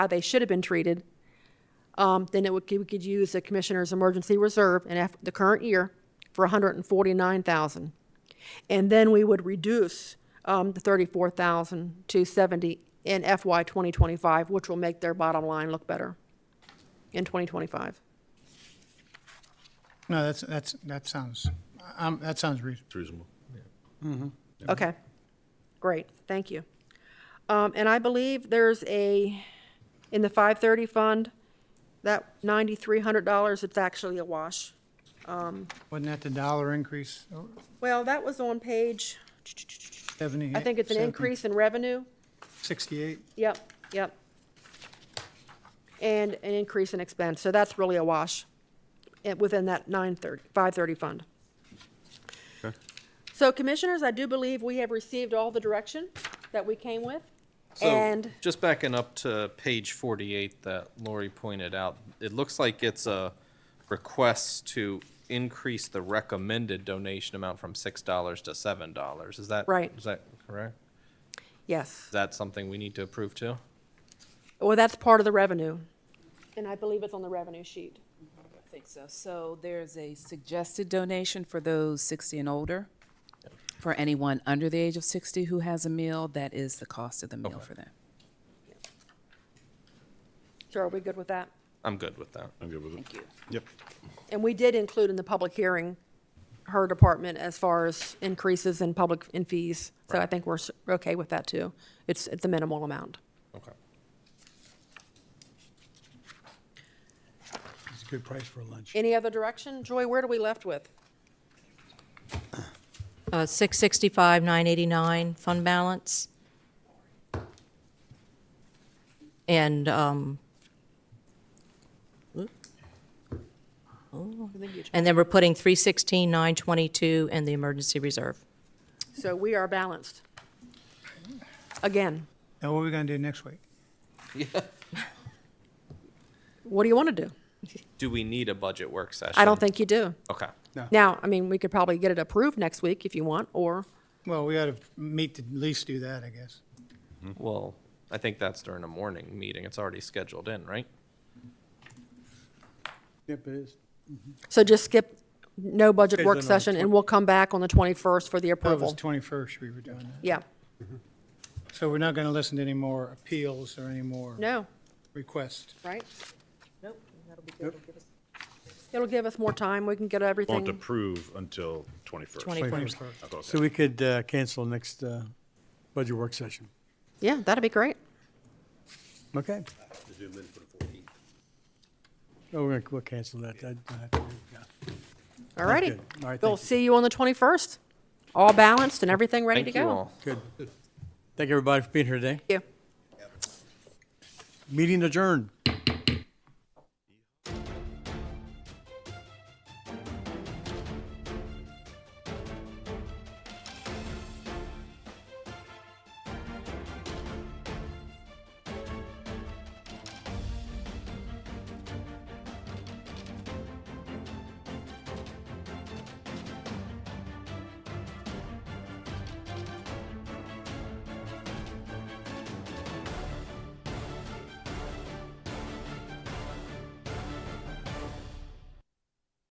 how they should have been treated, um, then it would, we could use the commissioner's emergency reserve in af- the current year for 149,000. And then we would reduce um, the 34,000 to 70 in FY 2025, which will make their bottom line look better in 2025. No, that's, that's, that sounds, um, that sounds reasonable. It's reasonable. Okay, great, thank you. Um, and I believe there's a, in the five thirty fund, that ninety-three hundred dollars, it's actually a wash. Wasn't that the dollar increase, Well, that was on page, seventy? I think it's an increase in revenue. Sixty-eight, Yep, yep. And an increase in expense, so that's really a wash eh, within that 930, 530 fund. So commissioners, I do believe we have received all the direction that we came with. So, And, just backing up to page forty-eight that Lori pointed out, it looks like it's a request to increase the recommended donation amount from six dollars to seven dollars. Is that? Right. Is that correct? yes, Is that something we need to approve too? well, that's part of the revenue. And I believe it's on the revenue sheet. I think so. So there's a suggested donation for those 60 and older. For anyone under the age of 60 who has a meal, that is the cost of the meal for them. So are we good with that? I'm good with that. I'm good with it. Thank you. Yep. And we did include in the public hearing her department as far as increases in public, in fees. So I think we're s- okay with that, too. It's, it's a minimal amount. Okay. It's a good price for lunch. Any other direction? Joy, where do we left with? Uh, 665, 989 fund balance. And, um, and then we're putting 316, 922 in the emergency reserve. So we are balanced. Again, now what are we gonna do next week? what do you want to do? Do we need a budget work session? I don't think you do. Okay. Now, I mean, we could probably get it approved next week if you want, or, Well, we ought to meet to at least do that, I guess. Well, I think that's during a morning meeting. It's already scheduled in, right? Yep, it is. so just skip no budget Okay, work then on the session, and we'll come back on the 21st for the That was approval. twenty-first we were doing that. Yeah, So we're not gonna listen to any more appeals or any more no, requests. right? Nope, that'll be good. It'll give us more time, we can get Won't everything. approve until 21st. 21st. I thought So that- we could uh, cancel next uh, budget work session. Yeah, that'd be great. Okay. Oh, we're gonna, we'll cancel that. That- that- yeah. All righty. good. All right, We'll thank you. see you on the 21st, all balanced and everything ready to Thank go. you all. Good. Thank everybody for being here today. Thank you. Meeting adjourned.